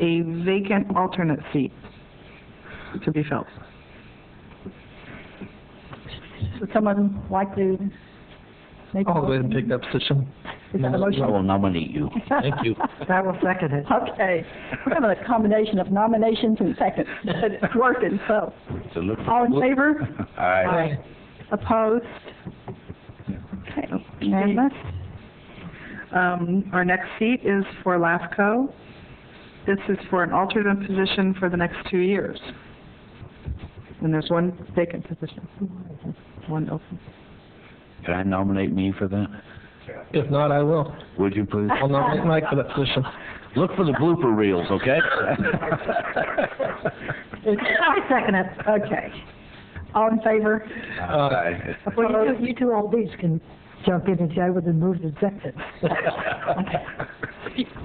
a vacant alternate seat to be filled. Would someone like to make a I'll go ahead and motion? take that position. Is that a motion? I will nominate you. Thank you. I will second it. Okay. We're having a combination of nominations and seconds, but it's working, so. So look for- All in look- favor? Aye. Opposed? Okay, unanimous. Um, our next seat is for LAFCO. This is for an alternate position for the next two years. And there's one vacant position, one open. Can I nominate me for that? If not, I will. Would you please? I'll nominate Mike for that position. Look for the blooper reels, okay? I second it. Okay. All in favor? Aye. Well, you two, you two old bees can jump in and say, I would have moved and seconded.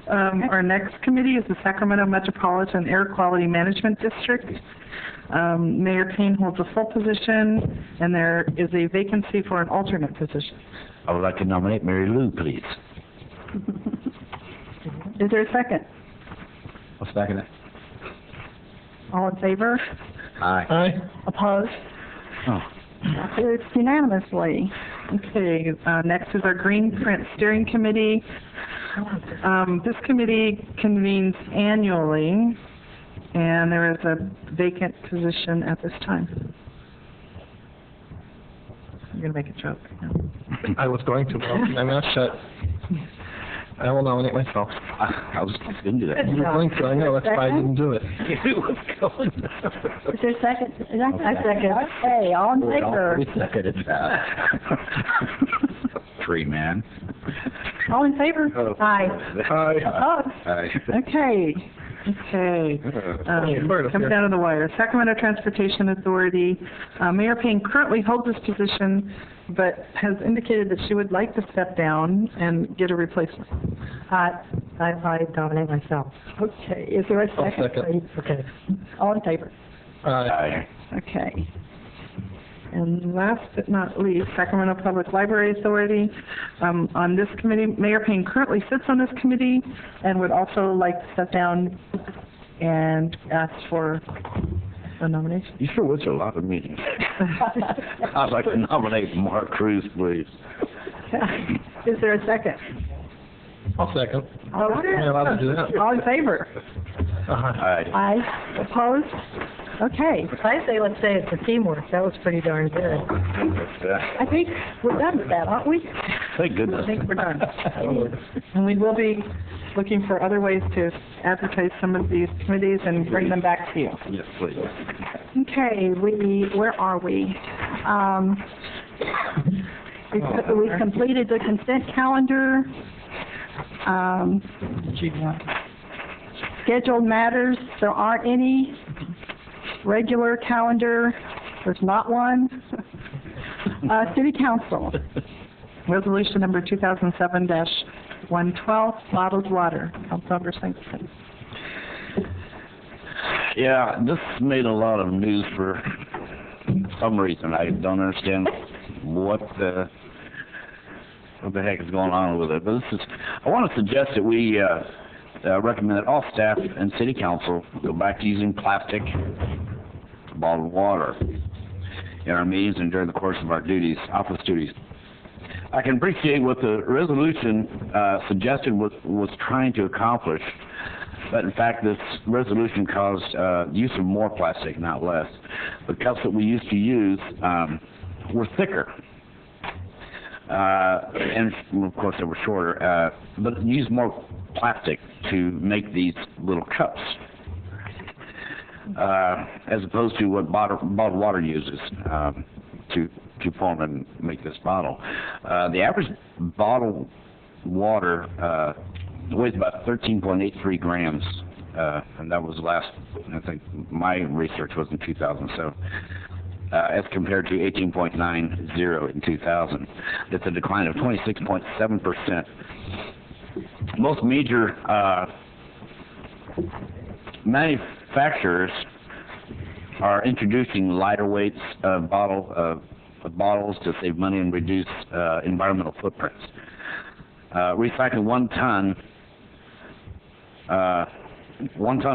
Um, our next committee is the Sacramento Metropolitan Air Quality Management District. Um, Mayor Payne holds a full position, and there is a vacancy for an alternate position. I would like to nominate Mary Lou, please. Is there a second? I'll second it. All in favor? Aye. Aye. Opposed? Oh, Approved unanimously. Okay, uh, next is our Green Print Steering Committee. Um, this committee convenes annually, and there is a vacant position at this time. You're gonna make a joke. no. I was going to, but I'll keep my mouth shut. I will nominate myself. I I was just gonna do that. You were going to, I know, that's why I didn't do it. You was going. Is there a second? Is that- Okay. Okay, all in favor? seconded Tree man. All in favor? Oh. Aye. Oh. Aye. Oh, Opposed? Aye. Okay. Okay. Um, Yeah, bird up Comes here. down to the wire. Sacramento Transportation Authority, uh, Mayor Payne currently holds this position, but has indicated that she would like to step down and get a replacement. Uh, I, I, I nominate myself. Okay, is there a I'll second? second. Okay. All in favor? Aye. Aye. Okay. And last but not least, Sacramento Public Library Authority. Um, On this committee, Mayor Payne currently sits on this committee and would also like to step down and ask for a nomination. You sure was a lot of meetings. I'd like to nominate Mark Cruz, please. Is there a second? I'll second. All Am I right. allowed to do that? Uh-huh. All in favor? Aye. Aye. Aye. Opposed? Okay. I say, let's say it's a teamwork, that was pretty darn good. I think we're done with that, aren't we? Thank goodness. I think we're done. And we will be looking for other ways to advertise some of these committees and bring them back to you. Yes, please. Okay, we, where are we? Um, we co- we completed the consent calendar. Um, scheduled matters, there aren't any. Regular calendar, there's not one. Uh, city council, Resolution number 2007-112, bottled water, Councilmember Singleton. Yeah, this made a lot of news for some reason. I don't understand what the, what the heck is going on with it. But this is, I want to suggest that we, uh, uh, recommend that all staff and city council go back to using plastic bottled water in our meetings and during the course of our duties, office duties. I can appreciate what the resolution uh, suggested was, was trying to accomplish, but in fact, this resolution caused uh, use of more plastic, not less. The cups that we used to use um, were thicker, uh, and well, of course, they were shorter, uh, but used more plastic to make these little cups, uh, as opposed to what bottle, bottled water uses. Um, to to form and make this bottle. Uh, the average bottle water uh, weighs about 13.83 grams, uh, and that was last. I think my research was in 2007. Uh, as compared to 18.90 in 2000, that's a decline of 26.7 percent. Most major uh, manufacturers are introducing lighter weights uh, bottle uh, bottles to save money and reduce uh, environmental footprints. Uh, recycling one ton uh, one ton of